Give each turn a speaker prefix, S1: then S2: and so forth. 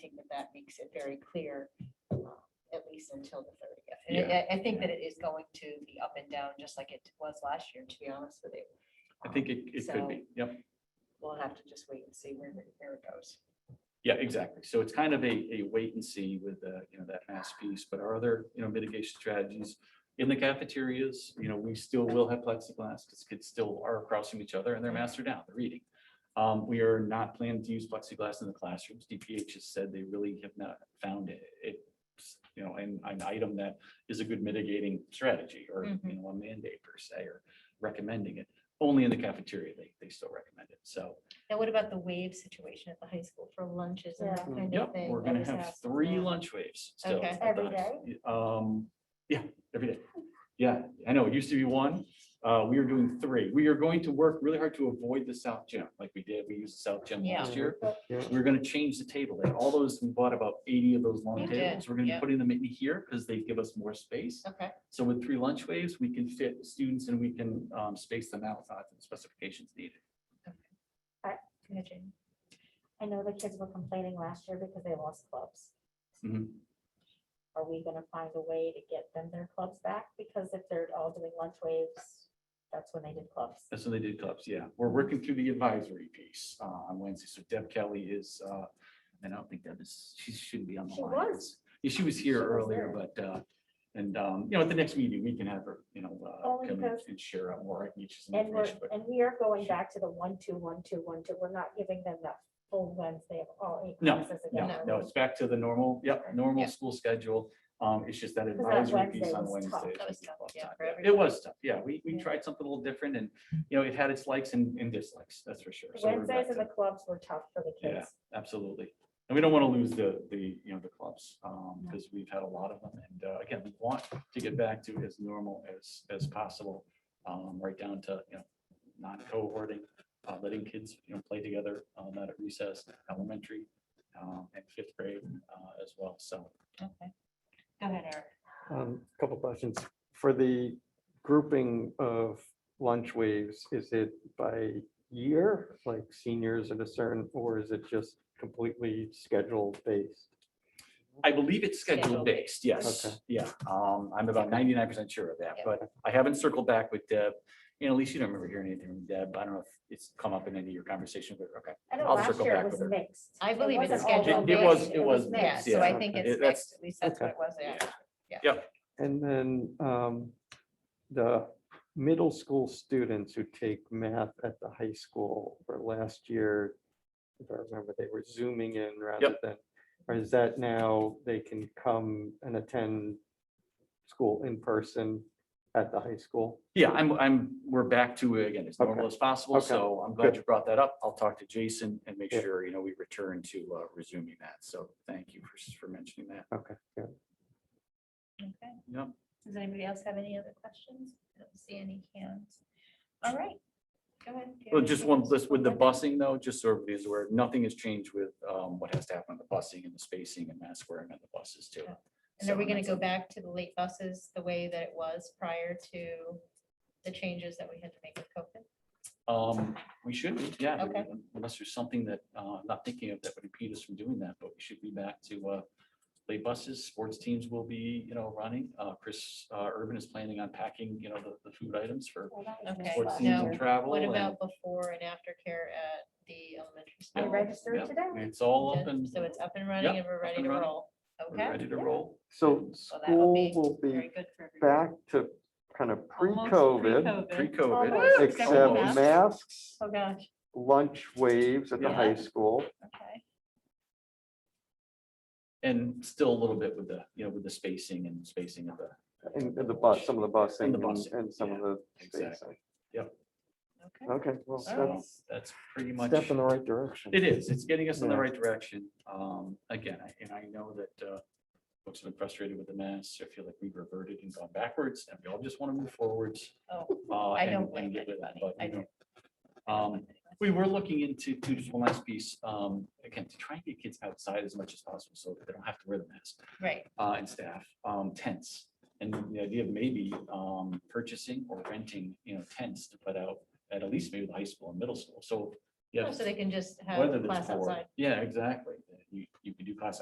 S1: think that that makes it very clear, um, at least until the thirtieth. And
S2: Yeah,
S1: I, I think that it is going to be up and down, just like it was last year, to be honest with you.
S2: I think
S1: Um,
S2: it, it could be,
S1: so
S2: yep,
S1: We'll have to just wait and see where, it- where it goes.
S2: yeah, exactly. So it's kind of a, a wait and see with the, you know, that mass piece, but our other, you know, mitigation strategies in the cafeterias, you know, we still will have plexiglass because kids still are across from each other and they're masked down, they're reading. Um, we are not planning to use plexiglass in the classrooms. DPH has said they really have not found it, it's, you know, an, an item that is a good mitigating strategy or, you know, a mandate per se, or recommending it. Only in the cafeteria, they, they still recommend it. So
S1: Now, what about the wave situation at the high school for lunches and that
S3: Yeah.
S1: kind of
S2: Yep,
S1: thing?
S2: we're
S1: That
S2: gonna
S1: was
S2: have
S1: asked
S2: three
S1: about.
S2: lunch waves still.
S1: Okay.
S2: at the
S3: Every
S2: high school. Um, yeah, every day. Yeah, I know, it used to be one, uh, we are doing three. We are going to work really hard to avoid the south gym, like we did, we used the south gym
S1: Yeah.
S2: last year.
S3: Yeah.
S2: We're gonna change the table, like all those, we bought about eighty of those
S1: You
S2: long
S1: did,
S2: tables, we're gonna be
S1: yeah.
S2: putting them in here, because they give us more space.
S1: Okay,
S2: So with three lunch waves, we can fit students and we can, um, space them out, uh, to the specifications needed.
S1: go ahead, Jamie.
S3: I know the kids were complaining last year because they lost clubs.
S2: Mhm.
S3: Are we gonna find a way to get them their clubs back? Because if they're all doing lunch waves, that's when they did clubs.
S2: That's when they did clubs, yeah. We're working through the advisory piece uh, on Wednesday. So Deb Kelly is, uh, and I don't think Deb is, she shouldn't be on the
S3: She
S2: line.
S3: was.
S2: Yeah, She was
S3: She
S2: here
S3: was
S2: earlier, but, uh, and, um, you know, at the next meeting, we can have her, you know, uh,
S3: Only
S2: come and-
S3: because-
S2: and share out more. I can get you some
S3: And we're,
S2: information, but
S3: and we are going back to the one, two, one, two, one, two. We're not giving them that full Wednesday of all eight
S2: No,
S3: classes again.
S2: No, no, it's back to the normal, yep,
S1: Yeah.
S2: normal school schedule. Um, it's just that
S3: that
S2: advisory
S3: Wednesday
S2: piece on
S3: was tough.
S2: Wednesday.
S1: That was tough, yeah, for
S2: It
S1: everybody.
S2: was tough, yeah. We, we
S3: Yeah.
S2: tried something a little different and, you know, it had its likes and and dislikes, that's for sure. So we're back
S3: Wednesdays
S2: to-
S3: and the clubs were tough for the
S2: Yeah.
S3: kids.
S2: Absolutely. And we don't want to lose the, the, you know, the clubs, um,
S3: No.
S2: because we've had a lot of them. And uh, again, we want to get back to as normal as, as possible. Um, right down to, you know, non-cohorting, uh, letting kids, you know, play together, uh, not at recess, elementary, um, and fifth grade, uh, as well. So,
S1: Okay. Go ahead, Eric.
S4: Um, Couple questions. For the grouping of lunch waves, is it by year, like seniors at a certain, or is it just completely schedule based?
S2: I believe it's schedule
S1: Schedule
S2: based,
S4: Okay.
S2: yes, yeah. Um, I'm about ninety-nine percent sure of that,
S1: Yeah.
S2: but I haven't circled back with Deb. You know, Elise, you don't remember hearing anything from Deb. I don't know if it's come up in any of your conversations, but okay.
S3: I know
S2: I'll
S3: last
S2: circle
S3: year
S2: back
S3: it was
S2: with her.
S3: mixed.
S1: I
S3: It
S1: believe it's
S3: wasn't all
S1: scheduled
S3: one
S2: It- it
S3: day.
S2: was- it was
S1: Yeah,
S2: mixed,
S1: so I
S2: yeah.
S1: think
S2: It-
S1: it's
S2: that's-
S1: next, at least that's what it was. yeah.
S4: And then um, the middle school students who take math at the high school for last year, if I remember, they were zooming in rather than, or is that now they can come and attend school in person at the high school?
S2: Yeah, I'm, I'm, we're back to, uh, again, as normal as possible,
S4: Okay.
S2: so I'm glad
S4: Good.
S2: you brought that up. I'll talk to Jason and make
S4: Yeah.
S2: sure, you know, we return to uh, resuming that, so thank you for, s- for mentioning that.
S4: Okay, yeah.
S1: Okay.
S2: Yep.
S1: Does anybody else have any other questions? I don't see any hands. All right. Go ahead. Do you have
S2: Well, just
S1: anything
S2: one,
S1: else?
S2: list with the
S1: Okay.
S2: busing though, just so everybody's aware, nothing has changed with um, what has to happen with the busing and the spacing and mask wearing on the buses too.
S1: Okay. And are we
S2: So
S1: gonna
S2: that's
S1: go
S2: it.
S1: back to the late buses the way that it was prior to the changes that we had to make with COVID?
S2: Um, we should, be, yeah,
S1: Okay.
S2: unless there's something that, uh, I'm not thinking of that would impede us from doing that, but we should be back to, uh, late buses, sports teams will be, you know, running, uh, Chris, uh, Urban is planning on packing, you know, the, the food items for
S3: Well, that was
S1: Okay.
S3: mixed
S2: sports
S3: last
S2: teams
S1: now,
S3: year.
S2: and travel.
S1: What
S2: and-
S1: about before and after care at the elementary
S3: I
S1: school?
S3: registered
S2: yeah,
S3: today.
S2: It's all up and
S1: So it's up and running
S2: Yep,
S1: and we're ready
S2: and
S1: to
S2: running.
S1: roll.
S2: we're
S1: Okay,
S2: ready to
S3: Yeah.
S2: roll.
S4: So
S1: Well, that'll
S4: school
S1: be
S4: will
S1: very
S4: be
S1: good for everybody.
S4: back to kind of
S1: Almost
S4: pre-COVID,
S2: Pre-COVID,
S3: Almost.
S1: Woo, except for masks.
S4: except masks,
S1: Oh, gosh,
S4: lunch waves at the
S2: Yeah.
S4: high school.
S1: okay.
S2: and still a little bit with the, you know, with the spacing and spacing of the,
S4: And and the bus, some of the busing
S2: And the
S4: and-
S2: busing,
S4: and some of
S2: yeah,
S4: the
S2: exactly.
S4: spacing.
S1: Okay.
S4: Okay, well,
S2: so
S4: that's
S2: that's pretty
S4: a
S2: much.
S4: step in the right direction.
S2: It is. It's getting us in the
S4: Yeah.
S2: right direction. Um, again, I- and I know that, uh, folks have been frustrated with the mass. I feel like we've reverted and gone backwards and we all just want to move forwards.
S1: Oh,
S2: uh,
S1: I
S2: and-
S1: don't
S2: and
S1: blame
S2: get with that,
S1: anybody.
S2: but, you
S1: I
S2: know,
S1: don't
S2: Um,
S1: think that's-
S2: we were looking into, to just one last piece, um, again, to try and get kids outside as much as possible so that they don't have to wear the mask
S1: Right,
S2: uh, and staff, um, tents. And the idea of maybe, um, purchasing or renting, you know, tents to put out at at least maybe the high school and middle school. So,
S1: Oh,
S2: yeah,
S1: so they can just have
S2: whether
S1: class
S2: that's for,
S1: outside.
S2: yeah, exactly. you, you could do class